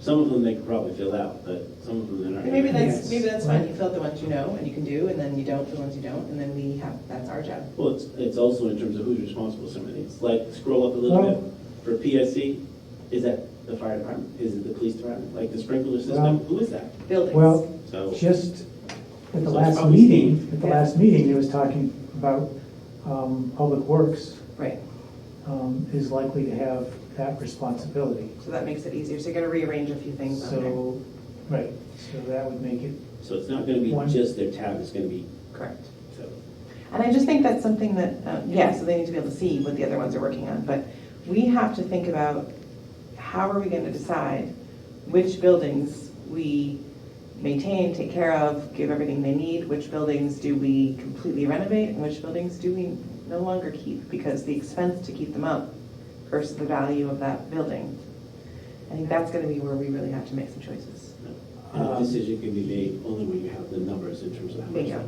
Some of them they could probably fill out, but some of them they're not. Maybe Yes. that's, maybe that's fine, you fill out the ones you know and you can do, and then you don't, the ones you don't, and then we have, that's our job. Well, it's, it's also in terms of who's responsible for some of these. Like, scroll up a little Well- bit. For PSC, is that the fire department? Is it the police department? Like the sprinkler Well- system? Who is that? Buildings. Well, So, just at the Oh. So it's last probably meeting, at the Yeah. last meeting, it was talking about um, Public Works Right, um, is likely to have that responsibility. so that makes it easier, so you gotta rearrange a few things on there. So, right, so that would make it, so it's not gonna be One. just their tab, it's gonna be, Correct. so. And I just think that's something that, uh, yeah, so they need to be able to see what the other ones are working on, but we have to think about how are we gonna decide which buildings we maintain, take care of, give everything they need, which buildings do we completely renovate, and which buildings do we no longer keep, because the expense to keep them up versus the value of that building. I think that's gonna be where we really have to make some choices. And the Um, decision can be made only when you have the numbers in terms of how much. Bingo.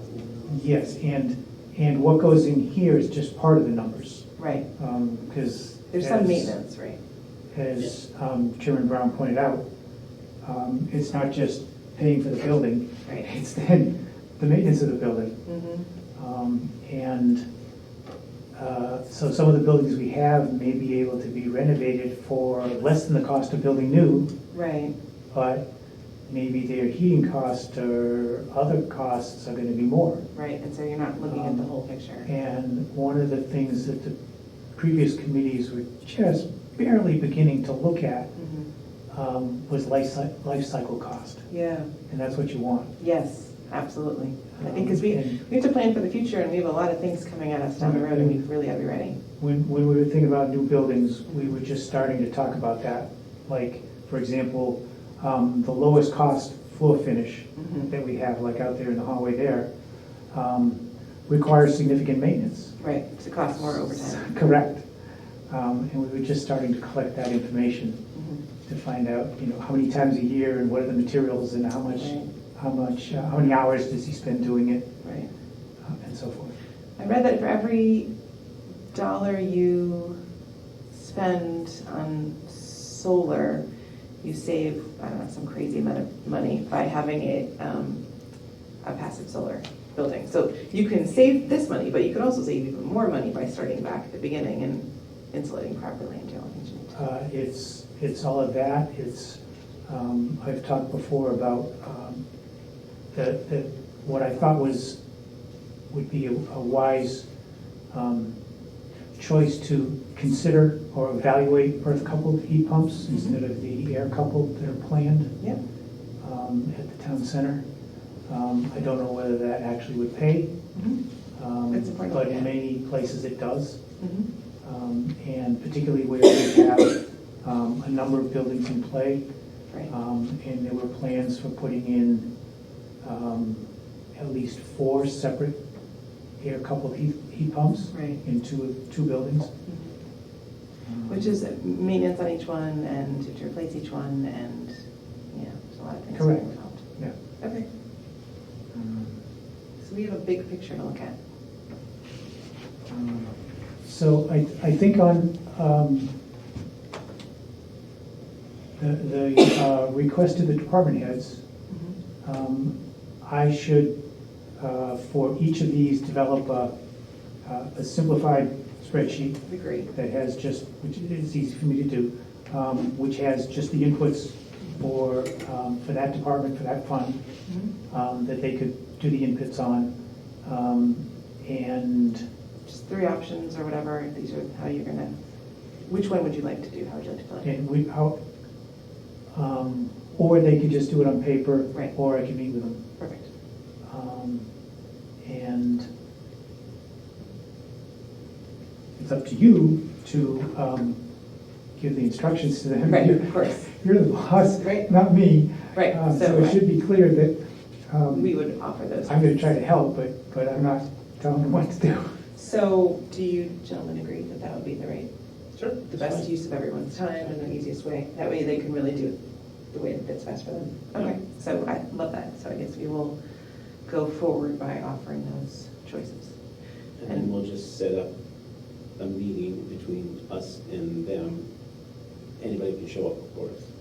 yes, and, and what goes in here is just part of the numbers, Right, because. there's some maintenance, right? As um, Chairman Brown pointed out, um, it's not just paying for the building, Right. it's then the maintenance of the building. Mm-hmm. Um, And uh, so some of the buildings we have may be able to be renovated for less than the cost of building new, Right, but maybe their heating cost or other costs are gonna be more. right, and so you're not looking at the whole picture. And one of the things that the previous committees were just barely beginning to look at Mhm. um, was life cy- life cycle cost, Yeah, and that's what you want. yes, absolutely. I think because we, Um, and- we have to plan for the future and we have a lot of things coming at us down the road and we really gotta be ready. When, when we were thinking about new buildings, we were just starting to talk about that. Like, for example, um, the lowest cost floor finish Mhm. that we have, like out there in the hallway there, um, requires significant maintenance. Right, to cost more overtime. Correct. Um, and we were just starting to collect that information Mhm. to find out, you know, how many times a year and what are the materials and how much, Right. how much, uh, how many hours does he spend doing it Right. uh, and so forth. I read that for every dollar you spend on solar, you save, I don't know, some crazy amount of money by having a, um, a passive solar building. So you can save this money, but you can also save even more money by starting back at the beginning and insulating properly and doing what you need to. Uh, It's, it's all of that, it's, um, I've talked before about um, the, the- what I thought was, would be a a wise um, choice to consider or evaluate earth-coupled heat pumps instead of the air-coupled that are planned Yep, um, at the town center. Um, I don't know whether that actually would pay, Mhm. um, That's important. but in many places it does Mhm. um, and particularly where we have um, a number of buildings in play. right, Um, And there were plans for putting in um, at least four separate air-coupled heat heat pumps right. in two, two buildings. Um, Which is maintenance on each one and to replace each one and, yeah, there's a lot of things Correct. involved. Yeah. Okay, Um, so we have a big picture to look at. um, So I, I think on um, the, the uh, request to the department heads, Um, I should, uh, for each of these, develop a uh, a simplified spreadsheet That'd be great. that has just, which is easy for me to do, um, which has just the inputs for, um, for that department, for that fund, um, that they could do the inputs on. Um, And Just three options or whatever, these are how you're gonna, which one would you like to do, how would you like to fill it? And we, how, um, or they could just do it on paper. Right. Or I could meet with them. Perfect. Um, And it's up to you to um, give the instructions to them. Right, You're- of course, You're the boss, Right. not me. right, Uh, So it so should be clear that um, we would offer those. I'm going to try to help, but, but I'm not telling them what to do. So do you gentlemen agree that that would be the right, Sure. the best use of everyone's time and the easiest way? That way they can really do it the way that fits best for them. Okay, so I love that, so I guess we will go forward by offering those choices. And then we'll just set up a meeting between us and them. Anybody can show up, of course.